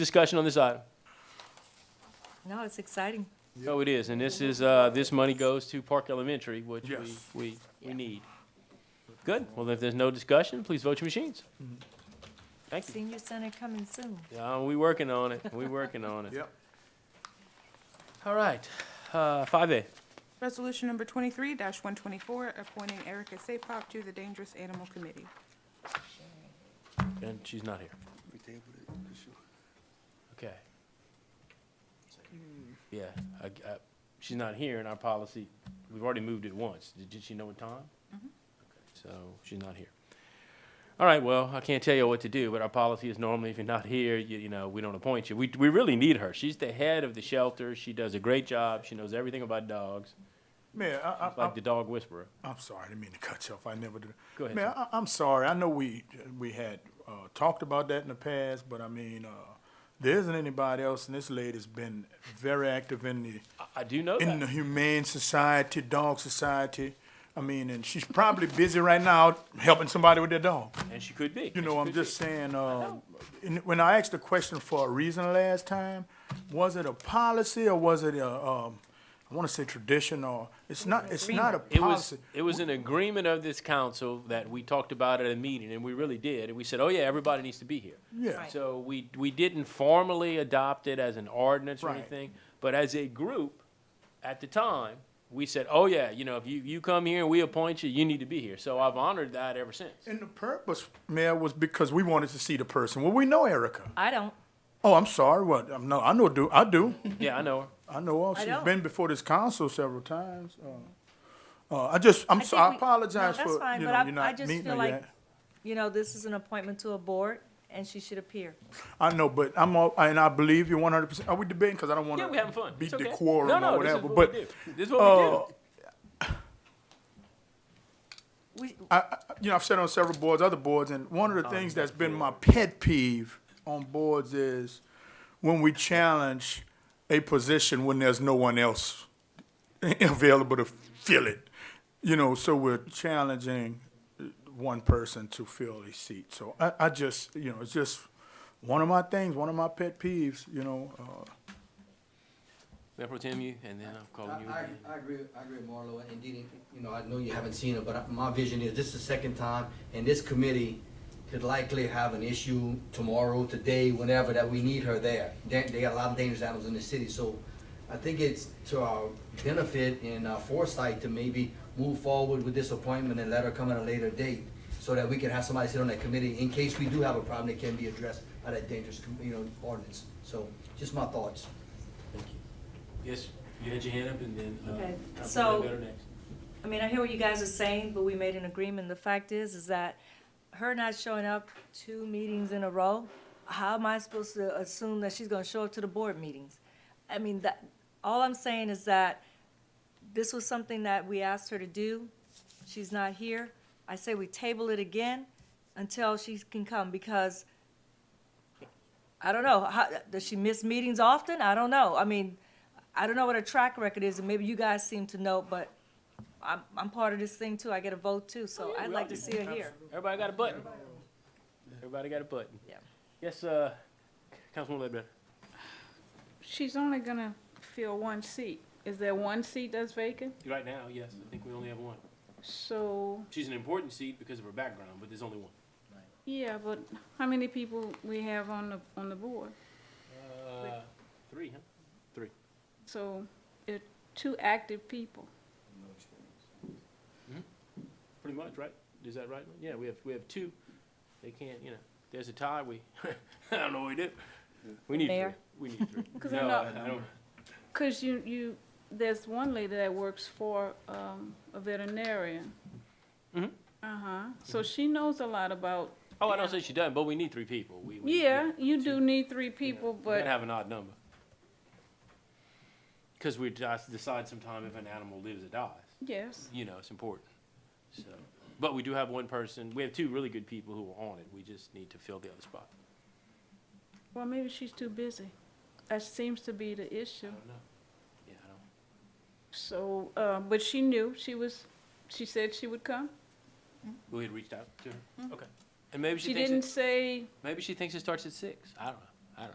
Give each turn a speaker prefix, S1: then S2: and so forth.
S1: Discussion on this item?
S2: No, it's exciting.
S1: No, it is, and this is, uh, this money goes to Park Elementary, which we,
S3: Yes.
S1: we, we
S2: Yeah.
S1: need. Good, well, if there's no discussion, please vote your machines.
S3: Mm-hmm.
S1: Thank you.
S2: Senior Center coming soon.
S1: Yeah, we working on it, we working on it.
S3: Yep.
S1: All right, uh, five A,
S4: Resolution number twenty-three one twenty-four, appointing Erica Sapop to the Dangerous Animal Committee.
S1: and she's not here. Okay.
S3: Hmm.
S1: Yeah, I, I, she's not here in our policy, we've already moved it once, did, did she know what time? Okay, So, she's not here. All right, well, I can't tell you what to do, but our policy is normally if you're not here, you, you know, we don't appoint you. We, we really need her, she's the head of the shelter, she does a great job, she knows everything about dogs,
S3: Mayor, I, I,
S1: like the dog whisperer.
S3: I'm sorry, I didn't mean to cut you off. I never did.
S1: Go ahead,
S3: Mayor,
S1: sir.
S3: I, I'm sorry. I know we, we had, uh, talked about that in the past, but I mean, uh, there isn't anybody else, and this lady's been very active in the,
S1: I, I do know
S3: in the
S1: that,
S3: Humane Society, Dog Society. I mean, and she's probably busy right now helping somebody with their dog.
S1: and she could be.
S3: You
S1: and
S3: know,
S1: she
S3: I'm
S1: could be.
S3: just saying, uh, in- when I asked the question for a reason last time, was it a policy or was it a, um, I wanna say tradition or, it's not, it's not a
S1: It was,
S3: policy.
S1: it was an agreement of this council that we talked about at a meeting, and we really did, and we said, oh yeah, everybody needs to be here.
S3: Yeah,
S2: Right.
S1: So we, we didn't formally adopt it as an ordinance or
S3: Right.
S1: anything, but as a group, at the time, we said, oh yeah, you know, if you, you come here and we appoint you, you need to be here. So I've honored that ever since.
S3: and the purpose, Mayor, was because we wanted to see the person. Well, we know Erica.
S2: I don't,
S3: Oh, I'm sorry, what, I'm, no, I know, do, I do.
S1: Yeah, I know her.
S3: I know, her.
S2: I
S3: she's
S2: don't.
S3: been before this council several times. uh, Uh, I just, I'm,
S2: I
S3: so-
S2: think
S3: I
S2: we-
S3: apologize
S2: no,
S3: for,
S2: that's fine,
S3: you
S2: but
S3: know,
S2: I-
S3: you're
S2: I
S3: not
S2: just
S3: meeting
S2: feel
S3: her
S2: like-
S3: yet.
S2: you know, this is an appointment to a board, and she should appear.
S3: I know, but I'm all, and I believe you 100%. Are we debating? Because I don't want to
S1: Yeah, we're having fun.
S3: beat
S1: It's
S3: the
S1: okay.
S3: quorum
S1: No, no,
S3: or
S1: this is
S3: whatever.
S1: what
S3: But
S1: we
S3: uh,
S1: do. This is what we do.
S2: We,
S3: I, I, you know, I've said on several boards, other boards, and one
S1: Oh,
S3: of the things that's been my pet peeve on boards is when we challenge a position when there's no one else available to fill it. You know, so we're challenging uh, one person to fill a seat. So I, I just, you know, it's just one of my things, one of my pet peeves. You know, uh,
S1: Mayor Pro Tem, you, and then I'm calling you
S5: I,
S1: again.
S5: I- I agree, I agree, with Marlo, and indeed, you know, I know you haven't seen it, but I- my vision is, this is the second time, and this committee could likely have an issue tomorrow, today, whenever, that we need her there. They, they got a lot of dangerous animals in the city, so I think it's to our benefit and our foresight to maybe move forward with this appointment and let her come at a later date, so that we can have somebody sit on that committee, in case we do have a problem that can be addressed by that dangerous, com- you know, ordinance. So, just my thoughts.
S1: Yes, you had your hand up and then, uh,
S2: Okay,
S1: Councilman
S2: so-
S1: Ledbetter next.
S2: I mean, I hear what you guys are saying, but we made an agreement. The fact is, is that her not showing up two meetings in a row, how am I supposed to assume that she's gonna show up to the board meetings? I mean, that, all I'm saying is that this was something that we asked her to do. She's not here. I say we table it again until she can come, because I don't know, how, does she miss meetings often? I don't know. I mean, I don't know what her track record is, and maybe you guys seem to know, but I'm, I'm part of this thing too. I get a vote too, so I'd like to see her here.
S1: Everybody got a button. Everybody got a button.
S2: Yeah.
S1: Yes, uh, Councilman Ledbetter.
S6: She's only gonna fill one seat. Is there one seat that's vacant?
S1: Right now, yes, I think we only have one.
S6: So,
S1: She's an important seat because of her background, but there's only one.
S6: yeah, but how many people we have on the, on the board?
S1: Uh, three, huh?
S6: So, it, two active people.
S1: Pretty much, right? Is that right? Yeah, we have, we have two. They can't, you know, there's a tie, we, I don't know what we do. We need three.
S2: Mayor?
S1: We need three.
S6: 'Cause I
S1: No,
S6: know-
S1: I I don't,
S6: Cause you, you, there's one lady that works for, um, a veterinarian.
S1: Mhm.
S6: Uh-huh. So she knows a lot about,
S1: oh, I don't say she doesn't, but we need three people. We- we-
S6: yeah, you
S1: She-
S6: do need three
S1: you know,
S6: people,
S1: We gotta
S6: but,
S1: have an odd number. Cause we just decide sometime if an animal lives or dies.
S6: yes.
S1: you know, it's important. So, but we do have one person, we have two really good people who are on it, we just need to fill the other spot.
S6: Well, maybe she's too busy. That seems to be the issue.
S1: I don't know. Yeah, I don't,
S6: So, uh, but she knew, she was, she said she would come.
S1: we had reached out to her, okay. And maybe she
S6: Mm-hmm. She
S1: thinks,
S6: didn't
S1: it-
S6: say,
S1: maybe she thinks it starts at six, I don't know.